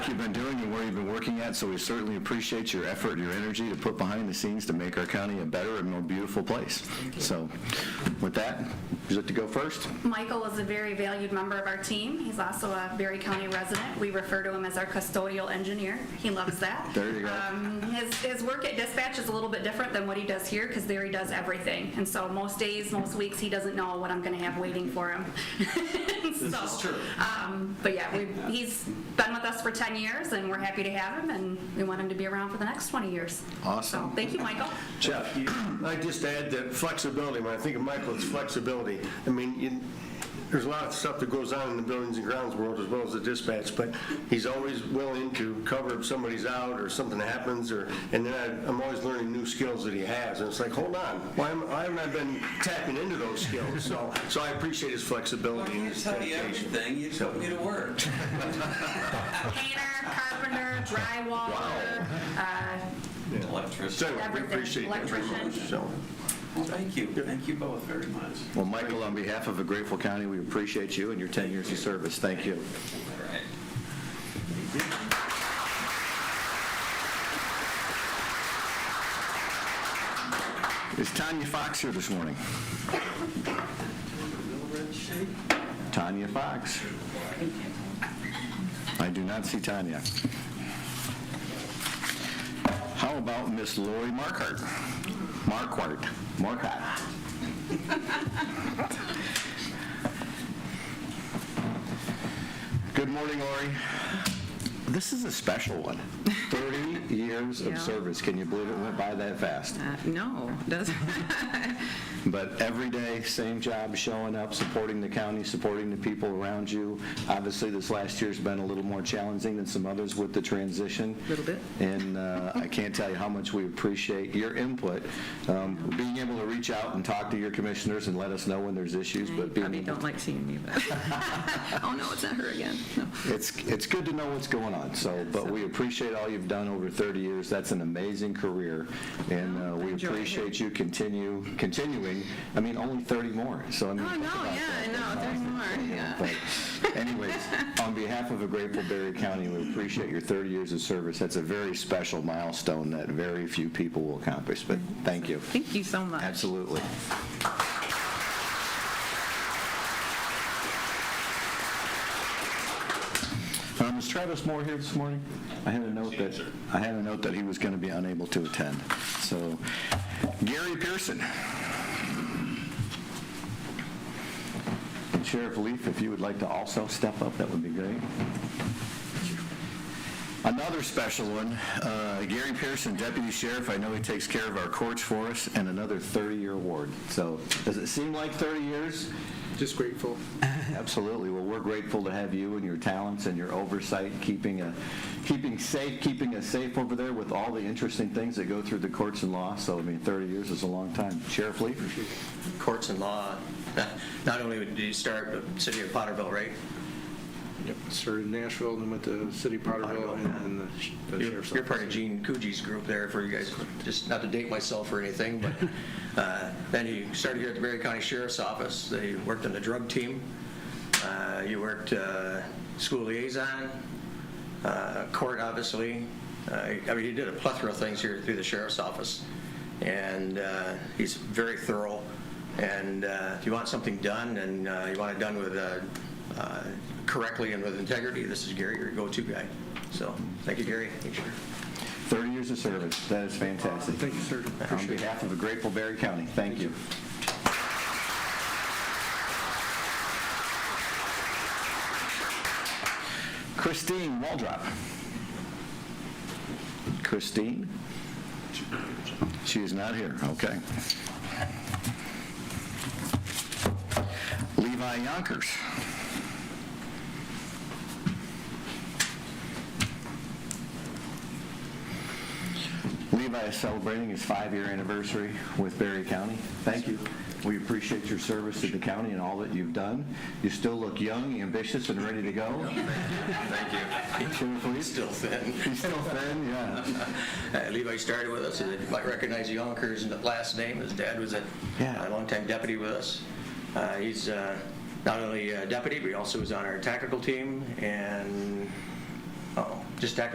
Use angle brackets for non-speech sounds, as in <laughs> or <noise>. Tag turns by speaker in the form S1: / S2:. S1: you've been doing and where you've been working at, so we certainly appreciate your effort and your energy to put behind the scenes to make our county a better and more beautiful place. So with that, would you like to go first?
S2: Michael is a very valued member of our team. He's also a Berry County resident. We refer to him as our custodial engineer. He loves that.
S1: <laughs> There you go.
S2: Um, His, his work at dispatch is a little bit different than what he does here, because there he does everything. And so most days, most weeks, he doesn't know what I'm gonna have waiting for him. <laughs> This
S3: is true.
S2: Um, but yeah, we, he's been with us for 10 years, and we're happy to have him, and we want him to be around for the next 20 years.
S1: Awesome.
S2: So, Thank
S1: <laughs>
S2: you, Michael.
S4: <clears throat> Jeff, I'd just add that flexibility, when I think of Michael, it's flexibility. I mean, you- there's a lot of stuff that goes on in the buildings and grounds world as well as the dispatch, but he's always willing to cover if somebody's out or something happens, or, and then I- I'm always learning new skills that he has, and it's like, hold on, why am- why haven't I been tapping into those skills? So, so I appreciate his
S3: I
S4: flexibility and
S3: can't
S4: his
S3: tell you
S4: dedication.
S3: everything, you put me to work.
S2: Painter, carpenter, drywaller, uh,
S3: Electricity.
S4: So anyway, we
S2: everything,
S4: appreciate
S2: electrician.
S4: it. So,
S3: Well, thank you, thank you both very much.
S1: Well, Michael, on behalf of the Grateful County, we appreciate you and your 10 years of service. Thank you.
S3: All right.
S1: Is Tanya Fox here this morning? Tanya Fox. I do not see Tanya. How about Miss Lori Markart? Markwart, Markat. Good morning, Lori. This is a special one. 30 years
S5: Yeah.
S1: of service. Can you believe it went by that fast?
S5: Uh, No, <laughs> doesn't,
S1: But every day, same job, showing up, supporting the county, supporting the people around you. Obviously, this last year's been a little more challenging than some others with the transition.
S5: Little bit.
S1: And uh, I can't tell you how much we appreciate your input, um, being able to reach out and talk to your commissioners and let us know when there's issues,
S5: you
S1: but being
S5: probably
S1: able-
S5: don't like seeing me, but, <laughs> oh no, it's not her again. No.
S1: it's, it's good to know what's going on, so, but we appreciate all you've done over 30 years. That's an amazing career, and uh, we
S5: Enjoy it.
S1: appreciate you continue, continuing. I mean, only 30 more, so I mean.
S5: Oh,
S1: think
S5: no,
S1: about
S5: yeah,
S1: that.
S5: I know, 30 more, yeah.
S1: But <laughs> anyways, on behalf of a grateful Berry County, we appreciate your 30 years of service. That's a very special milestone that very few people will accomplish, but thank you.
S5: Thank you so much.
S1: Absolutely. Um, Is Travis Moore here this morning? I had a note that, I had a note that he was going to be unable to attend. So Gary Pearson. And Sheriff Leaf, if you would like to also step up, that would be great. Another special one, uh, Gary Pearson, Deputy Sheriff, I know he takes care of our courts for us, and another 30-year award. So, does it seem like 30 years?
S6: Just grateful.
S1: <laughs> Absolutely. Well, we're grateful to have you and your talents and your oversight, keeping a, keeping safe, keeping us safe over there with all the interesting things that go through the courts and law. So, I mean, 30 years is a long time. Sheriff Lee?
S7: courts and law, <laughs> not only did you start with the city of Potterville, right?
S6: Yep. Started in Nashville and then went to City of Potterville and and the sh- the
S7: You're
S6: sheriff's office.
S7: you're part of Gene Coogie's group there for you guys, just not to date myself or anything, but uh, then you started here at the Berry County Sheriff's Office, then you worked on the drug team, Uh, you worked uh, school liaison, uh, court, obviously. Uh, I mean, you did a plethora of things here through the sheriff's office, and uh, he's very thorough. And uh, if you want something done, and uh, you want it done with, uh, uh, correctly and with integrity, this is Gary, your go-to guy. So, thank you, Gary. Thank you.
S1: 30 years of service. That is fantastic.
S6: Thank you, sir.
S1: On
S6: Appreciate it.
S1: behalf of the grateful Berry County, thank you. Christine Waldrop. Christine? She is not here, okay. Levi Yonkers. Levi is celebrating his five-year anniversary with Berry County. Thank you. We appreciate your service to the county and all that you've done. You still look young, ambitious, and ready to go.
S7: Thank you.
S1: Sheriff Lee?
S7: Still thin.
S1: He's still thin, yeah.
S7: Uh, Levi started with us, and you might recognize Yonkers' last name, his dad was a
S1: Yeah.
S7: a longtime deputy with us. Uh, He's uh, not only a deputy, but he also was on our tactical team, and, oh, just act